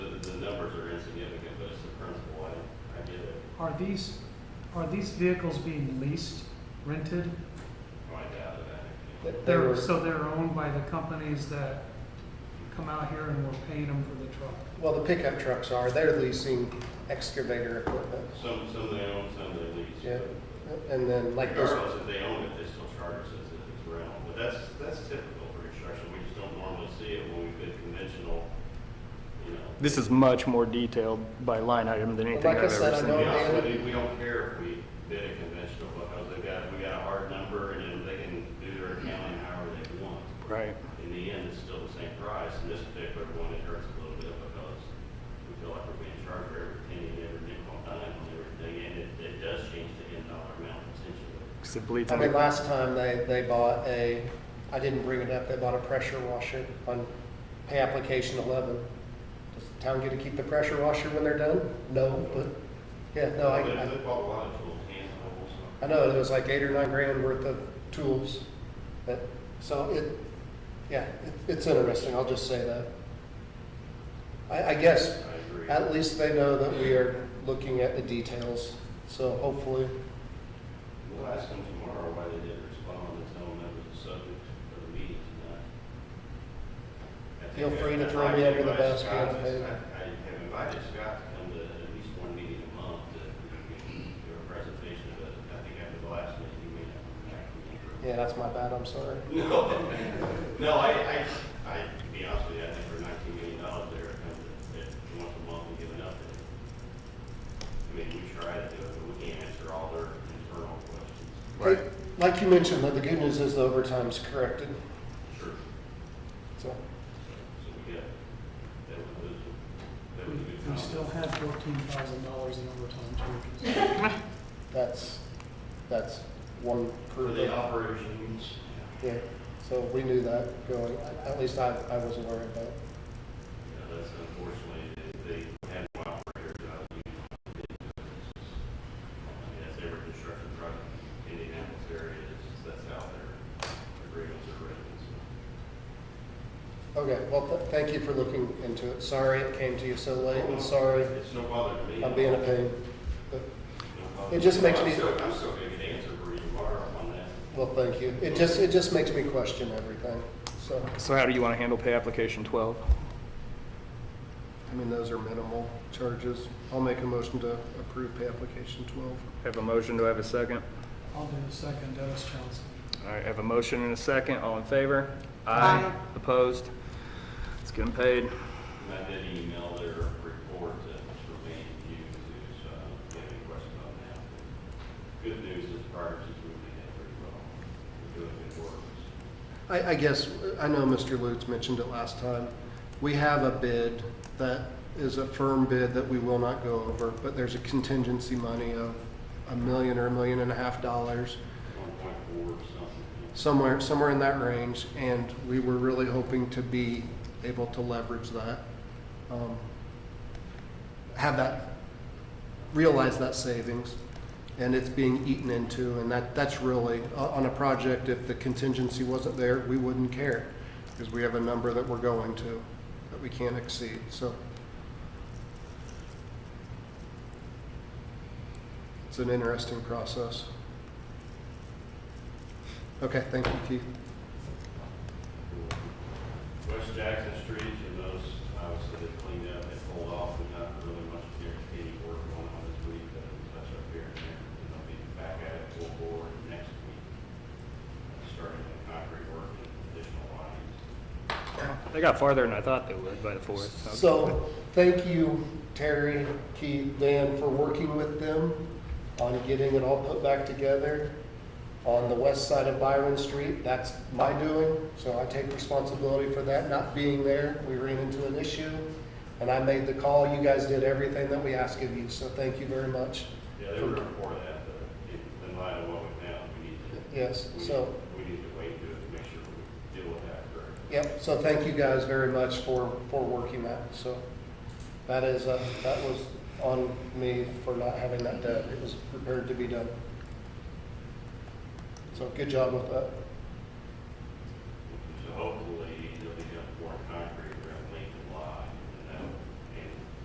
Are these, are these vehicles being leased, rented? No, Oh, I doubt it. That They They're, were, so they're owned by the companies that come out here and we're paying them for the truck? well, the pickup trucks are, they're leasing excavator equipment. Some, some they own, some they lease. Yeah. but And then like this, Regardless, if they own it, they still charge us as if it's rental, but that's, that's typical for construction, we just don't normally see it when we bid conventional, you know. This is much more detailed by line item than anything Like I I've said, To I ever seen. be don't- honest with you, we don't care if we bid a conventional, because they got, we got a hard number, and then they can do their accounting however they want. Right. In the end, it's still the same price, and this particular one, it hurts a little bit because we feel like we're being charged for every penny and every nickel and dime and everything, and it, it does change the end dollar amount potentially. 'Cause it bleeds I mean, into- last time they, they bought a, I didn't bring it up, they bought a pressure washer on pay application eleven. Does the town get to keep the pressure washer when they're done? No, but, yeah, no, I, But I- They bought a lot of tools, hand tools, so. I know, it was like eight or nine grand worth of tools, but, so it, yeah, it, it's interesting, I'll just say that. I, I guess, I agree. at least they know that we are looking at the details, so hopefully, We'll ask them tomorrow why they didn't respond and tell them that was the subject of the meeting tonight. I think Feel I- free to I- throw I me under the invited bus, Scott man. to- I I have invited Scott to come to at least one meeting a month to do a presentation, but I think after the last meeting, he may not. come back. yeah, that's my bad, I'm sorry. No, no, I, I, I, to be honest with you, I think for nineteen million dollars, they're, once a month, we give enough. I mean, we try to do it, but we can't answer all their internal questions. Right. Like you mentioned, though, the good news is the overtime's corrected, Sure. so, So we got, that was, that We was a good we still comment. have fourteen thousand dollars in overtime charges. that's, that's one For proof. the operations. Yeah, so we knew that going, at least I, I was aware of that. Yeah, that's unfortunately, they they had no operators out of union. That's every construction project in the Indianapolis area, it's just, that's how their agreements are written. so. Okay, well, th- thank you for looking into it. Sorry it came to you so late, and sorry It's no bother to me. I'm being a pain. But- No bother. It just makes I'm me- still- I'm still gonna get an answer for you tomorrow on that. Well, thank you. It just, it just makes me question everything, so. So how do you want to handle pay application 12? I mean, those are minimal charges. I'll make a motion to approve pay application 12. Have a motion, do I have a second? I'll do the second, Dennis Johnson. All right, have a motion and a second, all in favor? Aye. Opposed? It's getting paid. And I did email their report that was remained to you, too, so I don't have any questions on that. Good news is priorities is moving ahead pretty well. We're doing good work. I, I guess, I know Mr. Lutz mentioned it last time. We have a bid that is a firm bid that we will not go over, but there's a contingency money of a million or a million and a half dollars. One point four or something. somewhere, somewhere in that range, and we were really hoping to be able to leverage that. um, Have that, realize that savings, and it's being eaten into, and that, that's really, o- on a project, if the contingency wasn't there, we wouldn't care, because we have a number that we're going to, that we can't exceed, so. It's an interesting process. Okay, thank you, Keith. West Jackson Street, and those, obviously, they cleaned up, they pulled off, and not really much guaranteed work going on this week, but it was touch up here and there. And they'll be back at it full bore next week, starting the concrete work and additional lines. They got farther than I thought they would by the fourth. Okay. So, thank you, Terry, Keith, Dan, for working with them on getting it all put back together. On the west side of Byron Street, that's my doing, so I take responsibility for that not being there. We ran into an issue, and I made the call. You guys did everything that we asked of you, so thank you very much. Yeah, they were before that, but in in light of what we found, we need to, Yes, we so. need, we need to wait to make sure we deal with that correctly. Yep, so thank you guys very much for, for working that, so. That is, uh, that was on me for not having that done, it was prepared to be done. So good job with that. So hopefully,